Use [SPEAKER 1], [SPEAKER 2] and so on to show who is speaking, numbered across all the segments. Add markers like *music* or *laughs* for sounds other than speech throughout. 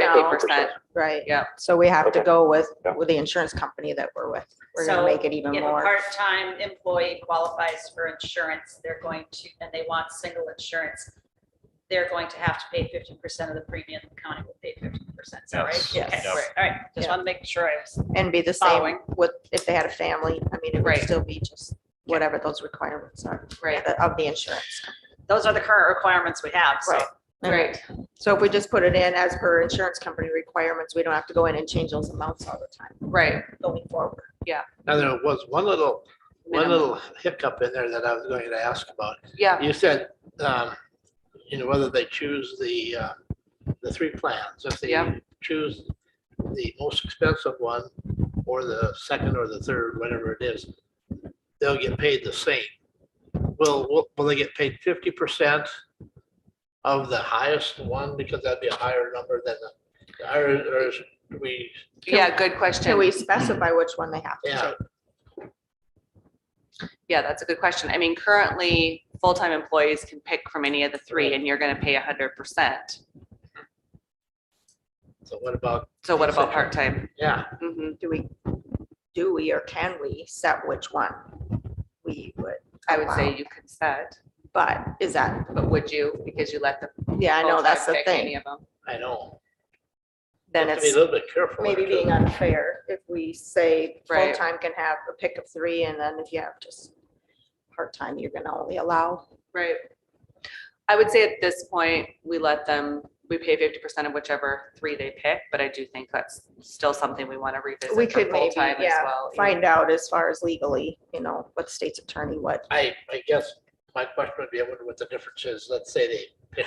[SPEAKER 1] now.
[SPEAKER 2] fifty percent.
[SPEAKER 3] right?
[SPEAKER 2] Yeah.
[SPEAKER 3] So we have to
[SPEAKER 4] Okay.
[SPEAKER 3] go with,
[SPEAKER 4] Yeah.
[SPEAKER 3] with the insurance company that we're with. We're gonna
[SPEAKER 1] So
[SPEAKER 3] make it even
[SPEAKER 1] If a
[SPEAKER 3] more.
[SPEAKER 1] part-time employee qualifies for insurance, they're going to, and they want single insurance, they're going to have to pay fifty percent of the premium, the county will pay fifty percent, is that right?
[SPEAKER 5] Yes.
[SPEAKER 1] Okay,
[SPEAKER 3] Yes.
[SPEAKER 1] All right, all right, just
[SPEAKER 3] Yeah.
[SPEAKER 1] want to make sure I was,
[SPEAKER 3] And be the same
[SPEAKER 1] Following.
[SPEAKER 3] with, if they had a family, I mean, it would
[SPEAKER 1] Right.
[SPEAKER 3] still be just whatever those requirements are
[SPEAKER 1] right,
[SPEAKER 3] of the insurance.
[SPEAKER 1] those are the current requirements we have, so.
[SPEAKER 3] Right.
[SPEAKER 2] Right.
[SPEAKER 3] So if we just put it in as per insurance company requirements, we don't have to go in and change those amounts all the time
[SPEAKER 2] Right.
[SPEAKER 3] going forward.
[SPEAKER 5] Now, there was one little, one
[SPEAKER 1] Minimum.
[SPEAKER 5] little hiccup in there that I was going to ask about.
[SPEAKER 2] Yeah.
[SPEAKER 5] You said, um, you know, whether they choose the, uh, the three plans, if they
[SPEAKER 2] Yeah.
[SPEAKER 5] choose the most expensive one or the second or the third, whatever it is, they'll get paid the same. Will, will, will they get paid fifty percent of the highest one because that'd be a higher number than the, or, or is- do we,
[SPEAKER 2] Yeah, good
[SPEAKER 3] Can we
[SPEAKER 2] question.
[SPEAKER 3] specify which one they have to
[SPEAKER 5] yeah,
[SPEAKER 3] take?
[SPEAKER 2] Yeah, that's a good question. I mean, currently, full-time employees can pick from any of the three and you're gonna pay a hundred percent.
[SPEAKER 5] so what about,
[SPEAKER 2] So what about part-time?
[SPEAKER 5] yeah.
[SPEAKER 2] Mhm.
[SPEAKER 3] Do we, do we or can we set which one we would?
[SPEAKER 2] I would
[SPEAKER 3] allow?
[SPEAKER 2] say you could set,
[SPEAKER 3] But is that,
[SPEAKER 2] but would you? Because you let the.
[SPEAKER 3] yeah, I know, that's
[SPEAKER 2] full-time
[SPEAKER 3] the
[SPEAKER 2] pick any
[SPEAKER 3] thing.
[SPEAKER 2] of them.
[SPEAKER 5] I know.
[SPEAKER 3] Then
[SPEAKER 5] You have to Be
[SPEAKER 3] it's
[SPEAKER 5] a little bit careful.
[SPEAKER 3] maybe
[SPEAKER 5] there, too.
[SPEAKER 3] being unfair if we say
[SPEAKER 2] um, Right.
[SPEAKER 3] full-time can have a pick of three and then if you have just part-time, you're gonna only allow.
[SPEAKER 2] Right. I would say at this point, we let them, we pay fifty percent of whichever three they pick, but I do think that's still something we want to revisit.
[SPEAKER 3] We
[SPEAKER 2] for
[SPEAKER 3] could maybe,
[SPEAKER 2] full-time as
[SPEAKER 3] yeah,
[SPEAKER 2] well.
[SPEAKER 3] Find out as far as legally, you know, what the state's attorney, what,
[SPEAKER 5] I, I guess my question would be, I wonder what the difference is. Let's say they pick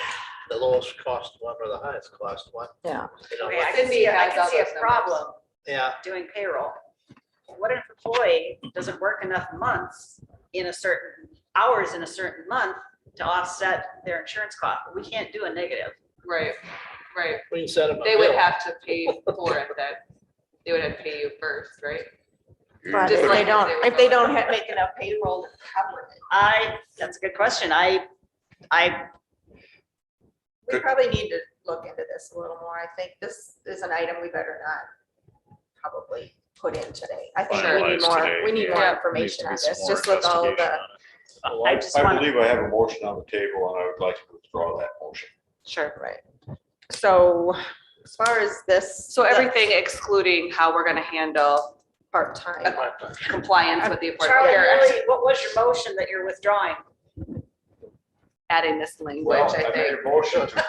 [SPEAKER 5] the lowest cost one or the highest cost one.
[SPEAKER 3] yeah.
[SPEAKER 5] You know,
[SPEAKER 1] Okay, I
[SPEAKER 5] what-
[SPEAKER 1] can see, I
[SPEAKER 2] Cindy has all
[SPEAKER 1] can see
[SPEAKER 2] those
[SPEAKER 1] a
[SPEAKER 2] numbers.
[SPEAKER 1] problem
[SPEAKER 5] Yeah,
[SPEAKER 1] doing payroll. What if an employee doesn't work enough months in a certain, hours in a certain month to offset their insurance cost? We can't do a negative.
[SPEAKER 2] Right, right.
[SPEAKER 5] we can set them. a
[SPEAKER 2] They would
[SPEAKER 5] bill.
[SPEAKER 2] have to pay for it that, they would have to pay you first, right?
[SPEAKER 3] But
[SPEAKER 2] Just
[SPEAKER 3] if they
[SPEAKER 2] like-
[SPEAKER 3] don't, if they don't ha- make enough payroll to cover it,
[SPEAKER 1] I, that's a good question. I, I,
[SPEAKER 3] we probably need to look into this a little more. I think this is an item we better not probably put in today. I think we need
[SPEAKER 6] Finalized today,
[SPEAKER 3] more, we need more
[SPEAKER 2] yeah.
[SPEAKER 6] Needs to
[SPEAKER 3] information
[SPEAKER 6] be
[SPEAKER 3] on
[SPEAKER 6] some
[SPEAKER 3] this,
[SPEAKER 6] more
[SPEAKER 3] just with all
[SPEAKER 6] investigation
[SPEAKER 3] the,
[SPEAKER 6] on it.
[SPEAKER 4] Well,
[SPEAKER 1] I
[SPEAKER 4] I,
[SPEAKER 1] just
[SPEAKER 4] I
[SPEAKER 1] wanna-
[SPEAKER 4] believe I have a motion on the table and I would like to withdraw that motion.
[SPEAKER 2] Sure.
[SPEAKER 3] right. So as far as this.
[SPEAKER 2] So
[SPEAKER 3] the
[SPEAKER 2] everything excluding how we're gonna handle
[SPEAKER 3] Part-time,
[SPEAKER 2] compliance with the Affordable
[SPEAKER 1] Charlie,
[SPEAKER 2] Care Act,
[SPEAKER 1] really, *laughs* what was your motion that you're withdrawing?
[SPEAKER 2] adding this language,
[SPEAKER 4] Well,
[SPEAKER 2] I
[SPEAKER 4] made
[SPEAKER 2] think.
[SPEAKER 4] a motion to-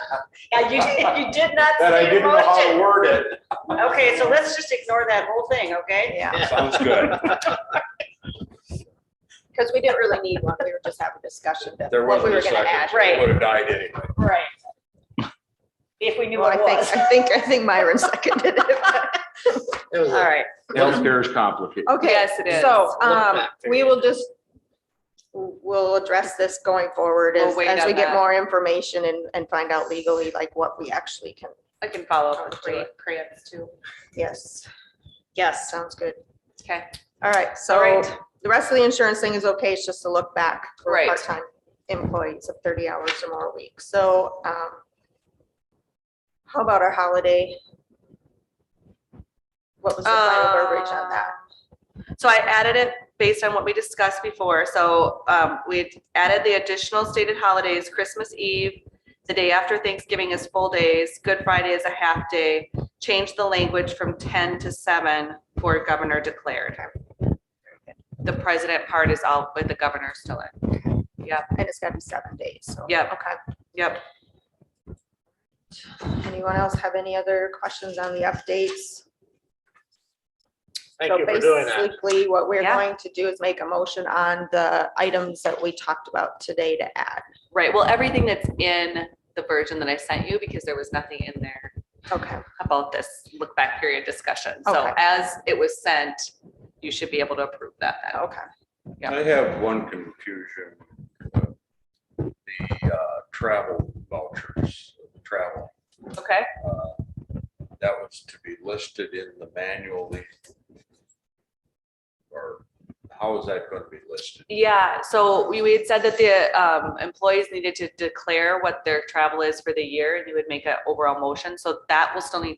[SPEAKER 1] Yeah, you, did- you did not
[SPEAKER 4] that I
[SPEAKER 1] say
[SPEAKER 4] didn't
[SPEAKER 1] your
[SPEAKER 4] know how to
[SPEAKER 1] motion.
[SPEAKER 4] word it.
[SPEAKER 1] Okay, so let's just ignore that whole thing, okay?
[SPEAKER 3] yeah,
[SPEAKER 4] Sounds good.
[SPEAKER 3] because we didn't really need one. We were just having discussion that
[SPEAKER 4] There
[SPEAKER 3] what we
[SPEAKER 4] wasn't
[SPEAKER 3] were
[SPEAKER 4] a
[SPEAKER 3] gonna add.
[SPEAKER 4] second.
[SPEAKER 1] Right.
[SPEAKER 4] Would have died anyway.
[SPEAKER 1] Right. If we knew
[SPEAKER 3] Well, I
[SPEAKER 1] what it
[SPEAKER 3] think,
[SPEAKER 1] was.
[SPEAKER 3] I think, I think Myron seconded it.
[SPEAKER 2] *laughs*
[SPEAKER 5] It was
[SPEAKER 1] *laughs* All
[SPEAKER 5] a-
[SPEAKER 1] right,
[SPEAKER 7] Healthcare is complicated.
[SPEAKER 3] Okay.
[SPEAKER 2] Yes, it is.
[SPEAKER 3] So,
[SPEAKER 5] Look
[SPEAKER 3] um,
[SPEAKER 5] back to
[SPEAKER 3] we
[SPEAKER 5] it.
[SPEAKER 3] will just, we'll address this going forward
[SPEAKER 2] We'll
[SPEAKER 3] as,
[SPEAKER 2] wait
[SPEAKER 3] as we
[SPEAKER 2] on
[SPEAKER 3] get
[SPEAKER 2] that.
[SPEAKER 3] more information and, and find out legally, like what we actually can,
[SPEAKER 2] I can follow up with Cre- Creance too.
[SPEAKER 3] yes,
[SPEAKER 1] yes.
[SPEAKER 3] sounds good.
[SPEAKER 2] Okay.
[SPEAKER 3] All right,
[SPEAKER 1] All
[SPEAKER 3] so
[SPEAKER 1] right.
[SPEAKER 3] the rest of the insurance thing is okay, it's just to look back for
[SPEAKER 2] Right.
[SPEAKER 3] part-time employees of thirty hours or more a week, so, um, how about our holiday? What was the final verbiage
[SPEAKER 2] Uh,
[SPEAKER 3] on that?
[SPEAKER 2] So I added it based on what we discussed before. So um, we added the additional stated holidays, Christmas Eve, the day after Thanksgiving is full days, Good Friday is a half day, changed the language from 10 to 7 for governor declared. The president part is all with the governor still in.
[SPEAKER 3] And it's gotta be seven days, so.
[SPEAKER 2] Yep.
[SPEAKER 3] Okay.
[SPEAKER 2] Yep.
[SPEAKER 3] Anyone else have any other questions on the updates?
[SPEAKER 5] Thank
[SPEAKER 3] So
[SPEAKER 5] you for doing that.
[SPEAKER 3] Basically, what we're
[SPEAKER 2] Yeah.
[SPEAKER 3] going to do is make a motion on the items that we talked about today to add.
[SPEAKER 2] Right. Well, everything that's in the version that I sent you, because there was nothing in there
[SPEAKER 3] Okay.
[SPEAKER 2] about this look back period discussion. So
[SPEAKER 3] Okay.
[SPEAKER 2] as it was sent, you should be able to approve that. then.
[SPEAKER 3] Okay.
[SPEAKER 2] Yeah.
[SPEAKER 6] I have one confusion. The uh, travel vouchers, travel,
[SPEAKER 2] Okay.
[SPEAKER 6] that was to be listed in the manually. Or how is that going to be listed?
[SPEAKER 2] Yeah, so we, we had said that the um, employees needed to declare what their travel is for the year, and you would make an overall motion, so that will still need